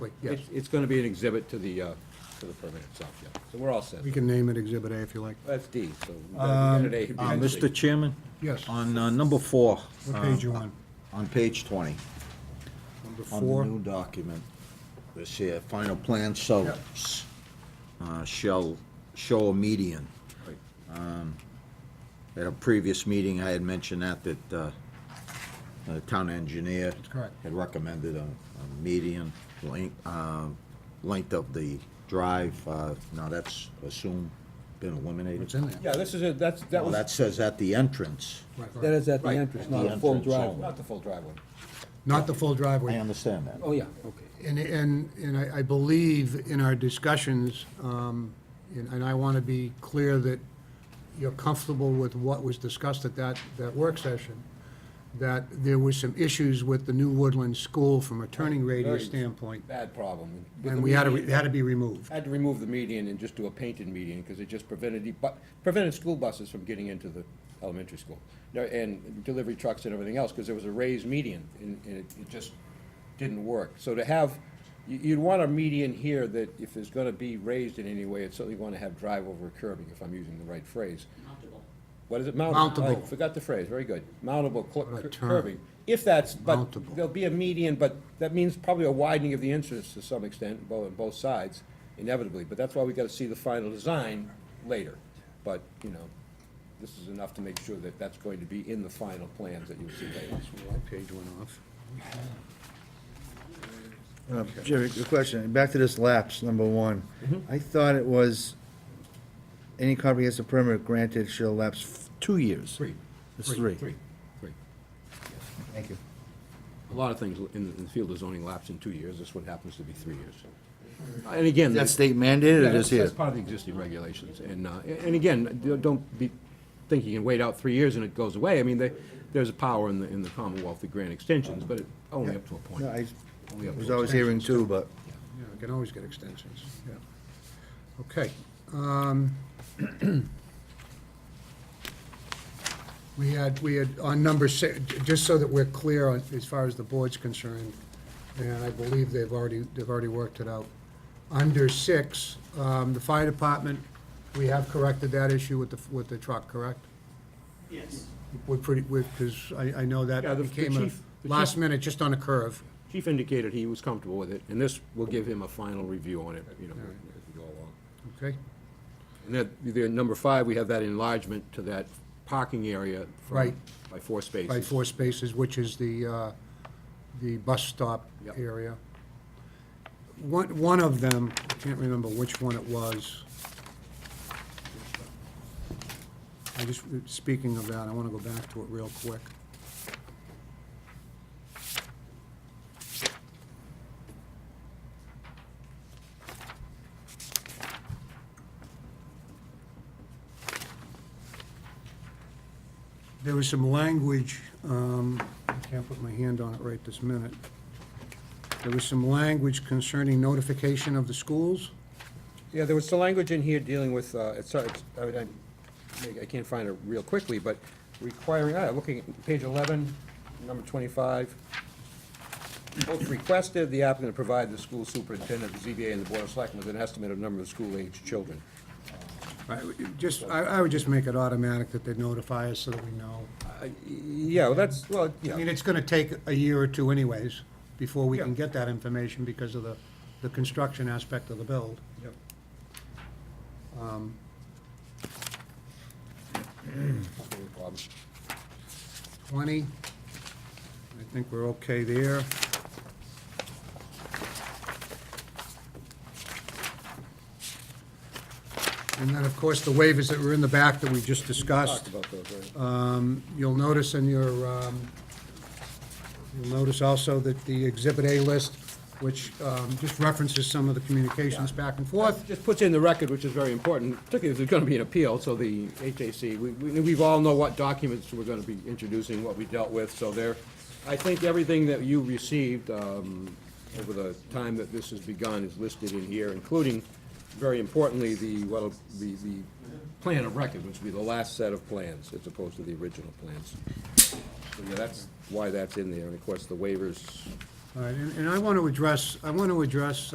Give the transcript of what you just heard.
Wait, yes, It's, it's gonna be an exhibit to the, uh, to the permit itself, yeah. So we're all set. we Um, can name it Exhibit A if you like. That's D, so. we've got- we've got an A, Uh, B, and C. Mr. Chairman? Yes. On uh, number four, uh, What page you on? on page 20, Number on the four? new document, this here, final plan shows, uh, shall show a median. Um, Right. At a previous meeting, I had mentioned that, that uh, the town engineer correct. had recommended a a median length, uh, length of the drive. Uh, Now, that's assumed, been eliminated. It's in there. Yeah, this is it, Oh, that's, that Well, was, that says at the entrance. Right, That right. is at the Right. entrance, At not the a full entrance driveway. only. not the full driveway. Not the full I driveway. understand that. Oh, yeah, okay. And, and, and I, I believe in our discussions, um, and and I want to be clear that you're comfortable with what was discussed at that, that work session, that there were some issues with the new Woodland School from a turning radius Very standpoint, Bad problem. With the and we had to, median- it had to be removed. Had to remove the median and just do a painted median, because it just prevented, the bu- prevented school buses from getting into the elementary school. No, And delivery trucks and everything else, because there was a raised median, and and it it just didn't work. So to have, you- you'd want a median here that if it's gonna be raised in any way, it's certainly gonna have drive over curbing, if I'm using the right phrase. What is it, mountable? Mountable. I Forgot the phrase, very good. Mountable cl- What a cur- term. curbing. If that's, but Mountable. there'll be a median, but that means probably a widening of the entrance to some extent, both, on both sides, inevitably. But that's why we gotta see the final design later. But, you know, this is enough to make sure that that's going to be in the final plans that you'll see later. Page went off. Uh, Jerry, good question. Back to this lapse, number one. Mm-hmm. I thought it was, any comprehensive permit granted shall lapse f- two years. Three. It's three. Three, three. Thank you. A lot of things in, the- in the field of zoning lapse in two years, this one happens to be three years. And again. That's state mandated, Yeah, it that's- is here. That's part of the existing regulations, and, uh, a- and again, d- don't be thinking you can wait out three years and it goes away. I mean, they, there's a power in the, in the Commonwealth to grant extensions, but it- only up to a point. No, I Only up to was a always hearing two, but Yeah, we can always get extensions, yeah. Okay. um, We had, we had, on number six, just so that we're clear on- as far as the board's concerned, and I believe they've already, they've already worked it out. Under six, um, the fire department, we have corrected that issue with the, with the truck, correct? Yes. We're pretty, we're, because I, I know that Yeah, the- the became a chief- the chief- last minute, just on a curve. Chief indicated he was comfortable with it, and this will give him a final review on it, you know, as we go along. Okay? And then, the number five, we have that enlargement to that parking area from- Right. by four spaces. by four spaces, which is the, uh, the bus stop Yep. area. One, one of them, I can't remember which one it was. I just, uh, speaking of that, I want to go back to it real quick. There was some language, um, I can't put my hand on it right this minute. There was some language concerning notification of the schools. Yeah, there was some language in here dealing with, uh, it's, it's- I mean, I- I can't find it real quickly, but requiring, ah, looking at page 11, number 25. Both requested the applicant to provide the school superintendent, the ZBA, and the board of selectmen with an estimate of number of school-aged children. I would Just, I, I would just make it automatic that they notify us so that we know. Yeah, well, that's, well, I yeah, mean, it's gonna take a year or two anyways, before we can Yeah. get that information because of the, the construction aspect of the build. Yep. Um, no problem. Twenty, I think we're okay there. And then, of course, the waivers that were in the back that we just discussed. Talked about those, right? Um, You'll notice in your, um, you'll notice also that the Exhibit A list, which um, just references some of the communications back and forth. Just puts in the record, which is very important, particularly if there's gonna be an appeal, so the HAC, we, we we've all know what documents we're gonna be introducing, what we dealt with, so there, I think everything that you received, um, over the time that this has begun is listed in here, including, very importantly, the, well, the, the plan of record, which will be the last set of plans, as opposed to the original plans. So, yeah, that's why that's in there, and of course, the waivers All right, and and I want to address, I want to address